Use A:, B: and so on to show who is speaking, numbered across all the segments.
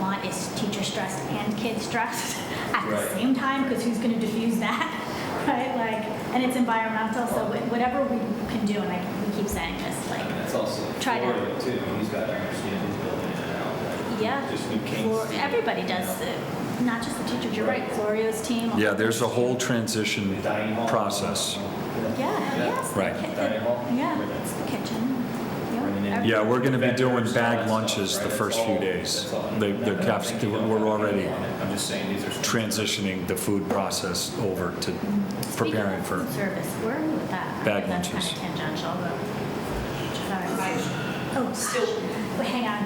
A: want is teacher stress and kid stress at
B: Right.
A: the same time, because who's going to diffuse that, right? Like, and it's environmental, so wh- whatever we can do, and like we keep saying this,
B: And
A: like,
B: that's also
A: Try to-
B: Florida too. He's got to understand his building and out. like,
A: yeah,
B: Just new kinks.
A: Flor- everybody does it, not just the teachers. You're right, Florio's team.
C: Yeah, there's a whole transition
B: Dining hall.
C: process.
A: Yeah, yes. the
C: Right.
A: ki- the-
B: Dining hall?
A: Yeah, it's the kitchen. Yep,
B: Bringing in-
A: every-
C: Yeah, we're going to be doing
B: Vendors, all that
C: bag
B: stuff,
C: lunches the
B: right?
C: first
B: That's
C: few
B: all-
C: days.
B: that's all.
C: They-
B: No,
C: They're
B: no,
C: caps,
B: thank you.
C: we're already
B: I'm just saying these are. some-
C: transitioning the food process over to
A: Speaking
C: preparing
A: of
C: for,
A: food Service, where are we with that?
C: Bag
A: That's
C: lunches.
A: kind of tangential, but. Oh, still, wait, hang on.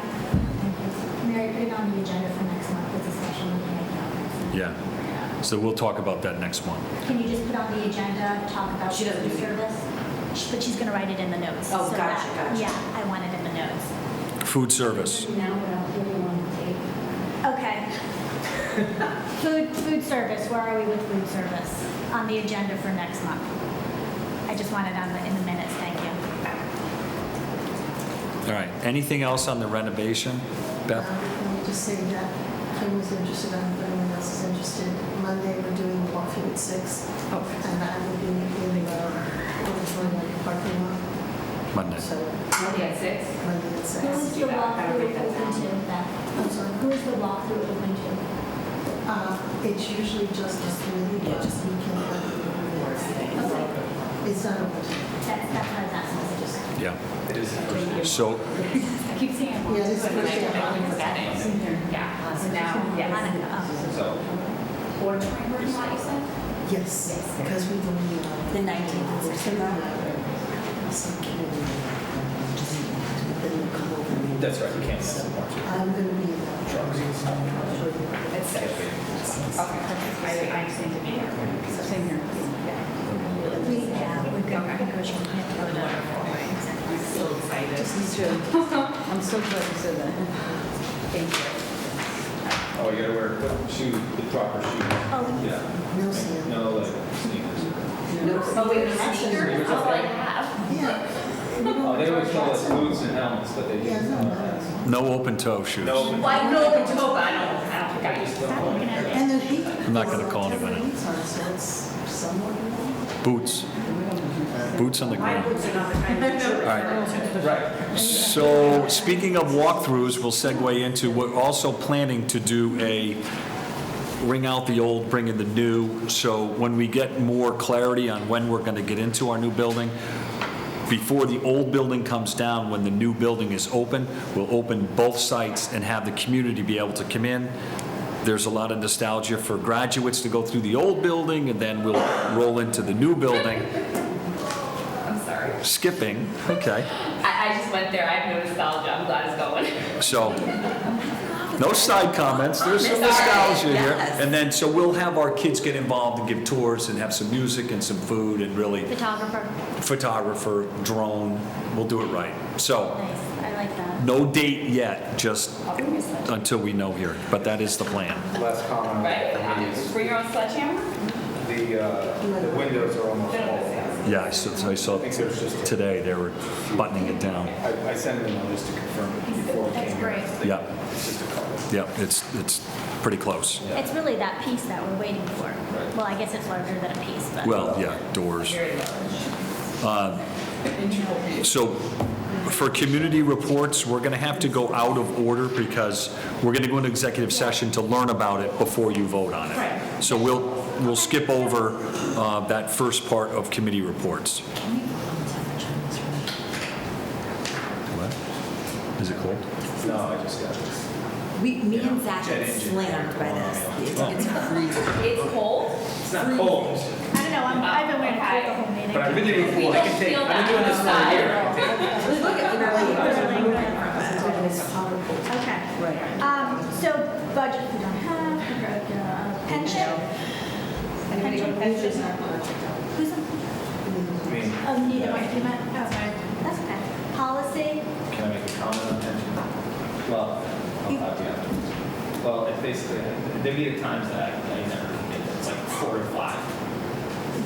A: Mary, put it on the agenda for next month, it's a special meeting. I can't remember.
C: yeah. So we'll talk about that next one.
A: Can you just put on the agenda, talk about
D: She
A: food
D: doesn't do that.
A: service? Sh- But she's gonna write it in the notes.
D: Oh,
A: so
D: gotcha,
A: that-
D: gotcha.
A: Yeah, I want it in the notes.
C: Food service,
E: Now what else do you want to take?
A: Okay. Food, food service, where are we with food service? On the agenda for next month. I just want it on the, in the minutes, thank you.
C: all right. Anything else on the renovation, Beth?
F: Let me just say that Kim was interested, I don't know if anyone else is interested. Monday, we're doing a walkthrough at six,
B: Oh.
D: Okay.
F: and I will be leaving our auditorium parking lot,
C: Monday.
F: so
D: Monday at six?
F: Monday at six.
D: do the that. I would walkthrough break that open down.
F: I'm sorry.
A: Who's the walkthrough open to?
F: Uh, It's usually just a community, but just we can, it's not open.
A: That's, that's what I was asking, was it just.
C: Yeah.
B: It is the first day.
C: So
A: I keep saying.
F: Yeah, this is
D: But
F: first
D: I
F: day.
D: don't forget it. Yeah, so now, yes.
A: Hanukkah,
B: So,
D: Auditorium, what you said?
F: Yes, because we don't need. uh,
E: The 19th of
F: Some community. um, Then you come over and-
B: that's right, you can't sell March.
F: I'm going to be in that truck.
D: It's six. Okay. I, I just need to be here. Same here. Yeah.
A: we, yeah, we've got,
D: Okay.
A: we can't go
D: I'm
A: to.
D: so excited. I'm so glad you said that. Thank
B: Oh, you gotta wear shoes, the proper shoes.
A: Oh.
B: Yeah.
F: No sand.
B: No, like sneakers.
D: you. No, but wait, sneakers, all I have.
F: Yeah.
B: Oh, they always tell us boots and helmets, but they
F: Yeah,
B: just.
F: no, no.
C: no open toe shoes.
B: No.
D: Well, I know the toga, I don't, I don't think I just.
A: Stop looking at it.
F: And the heat.
C: I'm not gonna call anybody.
F: So it's somewhat.
C: Boots. Boots on the ground.
D: boots are not the kind of shoes.
C: right.
B: Right.
C: So, speaking of walkthroughs, we'll segue into, we're also planning to do a ring out the old, bring in the new. So when we get more clarity on when we're going to get into our new building, before the old building comes down, when the new building is open, we'll open both sites and have the community be able to come in. There's a lot of nostalgia for graduates to go through the old building, and then we'll roll into the new building,
D: I'm sorry.
C: skipping, okay.
D: I, I just went there, I have no nostalgia, I'm glad it's going.
C: So, no side comments, there's some
D: Sorry,
C: nostalgia here.
D: yes.
C: And then, so we'll have our kids get involved and give tours and have some music and some food and really
A: Photographer,
C: photographer, drone, we'll do it right. So,
A: nice, I like that.
C: no date yet, just
D: I'll bring my sledgehammer.
C: until we know here, but that is the plan.
G: Last comment.
D: Right,
G: for me is
D: uh, bring your own sledgehammer?
G: The, uh, the windows are almost all.
C: Yeah, I saw, I saw
G: I think there's just, a-
C: today they were buttoning it down.
G: I, I sent them just to confirm it before it
A: That's
G: came here.
A: great.
C: Yeah,
G: It's just a couple.
C: yeah, it's, it's pretty close.
A: It's really that piece that we're waiting for. Well, I guess it's larger than a piece, but.
C: Well, yeah, doors.
D: Very large.
B: Uh,
C: So for community reports, we're going to have to go out of order because we're going to go into executive session to learn about it before you vote on it. So we'll, we'll skip over uh, that first part of committee reports. What? Is it cold?
B: No, I just got this.
E: We, me and Zach
B: Jet
E: are
B: engine.
E: slammed by this. It's- It's freezing.
D: It's cold,
B: It's not cold,
A: I don't know, I'm, I've been wearing a coat the whole meeting.
B: but I've been there
D: we
B: before. I
D: don't
B: can take,
D: feel
B: I've
D: that
B: been doing this for a
D: outside.
B: year. I can take-
E: Look at the
A: Okay.
E: Right.
A: Um, so budget we don't have, we got, uh, pension.
D: Anybody go to pension?
A: Who's on,
B: I mean,
A: oh, Nita, wait, you meant, oh, sorry. that's okay. Policy,
B: Can I make a comment on pension? Well, I'll have to afterwards. Well, it's basically, there'd be times that I, I never commit, it's like four to five.
D: So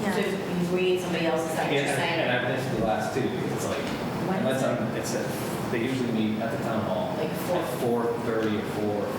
A: yeah,
D: you- we need somebody else's side, you're
B: And and
D: saying,
B: I've been to the last two, it's like,
D: When is
B: unless I'm, it's, a- they usually meet at the town hall
D: Like four?
B: at four thirty or four,